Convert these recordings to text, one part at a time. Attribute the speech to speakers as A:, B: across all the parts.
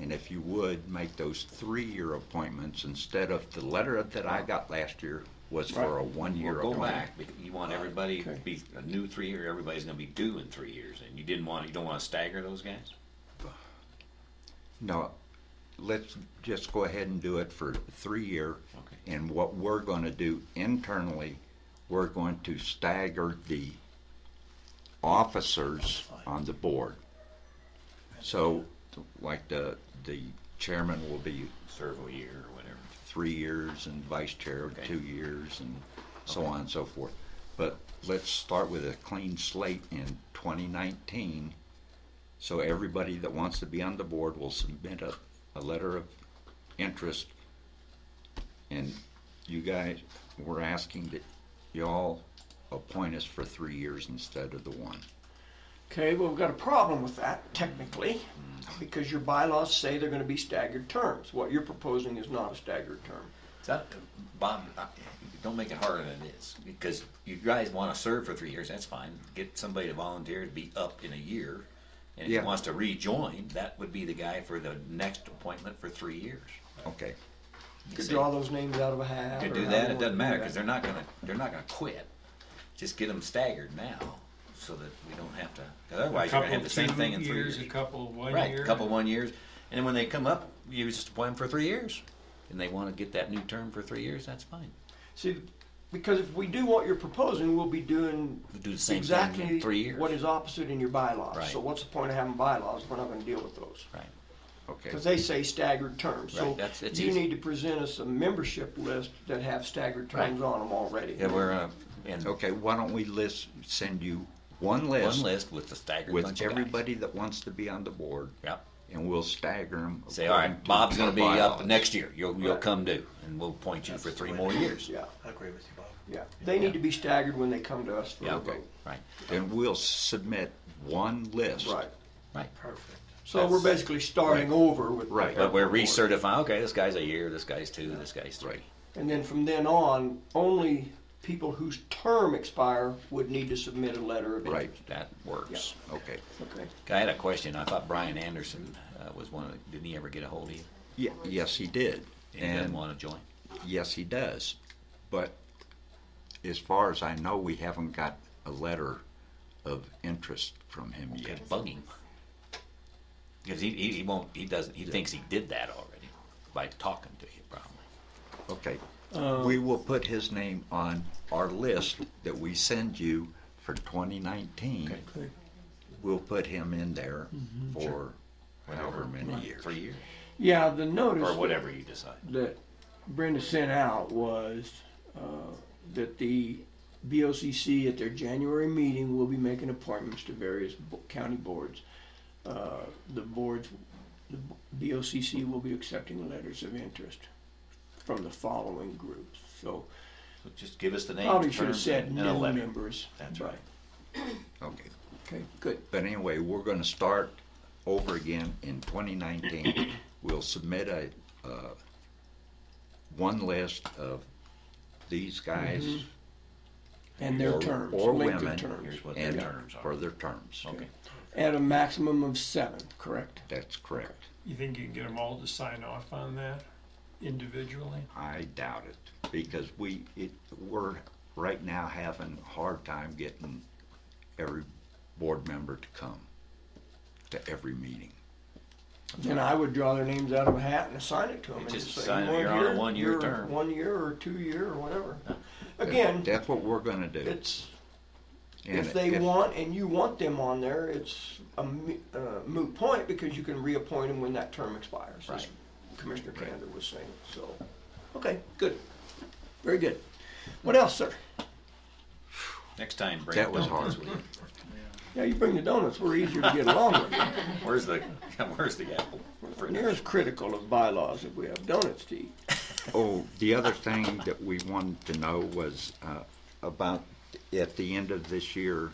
A: And if you would, make those three-year appointments instead of the letter that I got last year was for
B: Right.
A: a one-year
C: Well, go
A: appointment.
C: back, because you want everybody to
B: Okay.
C: be a new three year, everybody's gonna be due in three years, and you didn't want, you don't wanna stagger those guys?
A: No, let's just go ahead and do it for three-year.
C: Okay.
A: And what we're gonna do internally, we're going to stagger the officers on the board. So, like the, the chairman will be
C: Serve a year or whatever.
A: three years and vice chair
C: Okay.
A: two years and so on and so forth. But let's start with a clean slate in 2019. So everybody that wants to be on the board will submit a, a letter of interest. And you guys, we're asking that y'all appoint us for three years instead of the one.
B: Okay, well, we've got a problem with that technically, because your bylaws say they're gonna be staggered terms. What you're proposing is not a staggered term.
C: That, Bob, I- don't make it harder than it is, because you guys wanna serve for three years, that's fine, get somebody to volunteer to be up in a year. And if he
A: Yeah.
C: wants to rejoin, that would be the guy for the next appointment for three years.
A: Okay,
B: You could draw those names out of a hat.
C: Could
B: or
C: do
B: however
C: that,
B: you
C: it
B: wanna
C: doesn't
B: do
C: matter,
B: that.
C: cause they're not gonna, they're not gonna quit. Just get them staggered now, so that we don't have to, cause otherwise you're gonna have the same thing in three years.
D: A couple one year.
C: Right, a couple one years, and then when they come up, you just appoint them for three years. And they wanna get that new term for three years, that's fine.
B: See, because if we do what you're proposing, we'll be doing
C: We do the same thing
B: exactly
C: in three years.
B: what is opposite in your bylaws.
C: Right.
B: So what's the point of having bylaws if we're not gonna deal with those?
C: Right.
A: okay.
B: Because they say staggered terms. So
C: Right, that's- it's
B: you
C: easy.
B: need to present us a membership list that have staggered
C: Right.
B: terms on them already.
C: Yeah, we're, uh, and
A: Okay, why don't we list, send you one
C: one
A: list
C: list with the staggered bunch
A: with
C: of guys.
A: everybody that wants to be on the board.
C: Yep.
A: and we'll stagger them.
C: Say, all right, Bob's gonna be up next year, you'll, you'll come due, and we'll appoint you for
D: That's the
C: three
D: way
C: more
D: it
C: years.
B: Yeah,
D: I agree with you, Bob.
B: yeah. They need to be staggered when they come to us for
C: Yeah,
B: a
C: okay,
B: vote.
C: right,
A: And we'll submit one list.
B: Right.
C: right.
D: Perfect.
B: So we're
C: That's-
B: basically starting over with.
A: Right.
C: But we're recertifying, okay, this guy's a year, this guy's two, this guy's three.
A: Right.
B: And then from then on, only people whose term expire would need to submit a letter of
A: Right.
B: interest.
C: That works.
A: Okay.
B: Okay.
C: I had a question, I thought Brian Anderson uh, was one of, the- didn't he ever get a hold of you?
A: Yeah, yes, he did.
C: And he doesn't
A: And
C: wanna join?
A: yes, he does. But as far as I know, we haven't got a letter of interest from him
C: Yeah,
A: yet.
C: bug him. Because he, he, he won't, he doesn't, he thinks he did that already by talking to you probably.
A: Okay. We will put his name on our list that we send you for 2019.
B: Okay.
A: We'll put him in there for however many years.
C: Three years,
E: Yeah, the notice
C: or whatever you decide.
E: that Brenda sent out was uh, that the BOCC at their January meeting will be making appointments to various bo- county boards. Uh, The boards, the BOCC will be accepting letters of interest from the following groups. So
C: So just give us the name.
E: probably should have
C: terms,
E: said
C: and a
E: new
C: letter.
E: members.
C: That's
E: but-
C: right.
A: Okay.
E: Okay, good.
A: But anyway, we're going to start over again in 2019. We'll submit a, uh, one list of these guys
E: And Mm-hmm. their
A: Or-
E: terms,
A: or
E: length
A: women.
E: of terms,
C: Here's what their
A: and
C: terms
A: for
C: are.
A: their terms.
C: Okay,
E: at a maximum of seven, correct?
A: That's correct.
D: You think you can get them all to sign off on that individually?
A: I doubt it, because we, it, we're right now having a hard time getting every board member to come to every meeting.
E: Then I would draw their names out of a hat and assign it to them.
C: You
E: and
C: just
E: say,
C: assign
E: you want
C: it, you're on a
E: here,
C: one-year
E: you're
C: term.
E: One year or two year or whatever.
B: Again,
A: That's what we're going to do.
B: it's,
A: And
B: if they want, and you want them on there, it's a mo- uh, moot point because you can reappoint them when that term expires. as
C: Right.
B: Commissioner Kander was saying, so, okay, good, very good. What else, sir?
C: next time, bring
A: That was
C: donuts
A: hard.
C: with you.
B: Yeah, you bring the donuts, we're easier to get along with.
C: Where's the, where's the apple?
B: Near as critical of bylaws that we have donuts to eat.
A: Oh, the other thing that we wanted to know was uh, about, at the end of this year,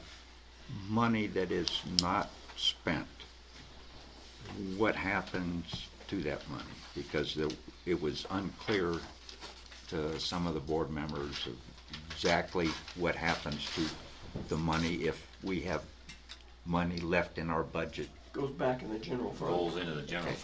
A: money that is not spent. What happens to that money? Because the- it was unclear to some of the board members of exactly what happens to the money if we have money left in our budget
B: Goes back in the general fund.
C: Rolls into the general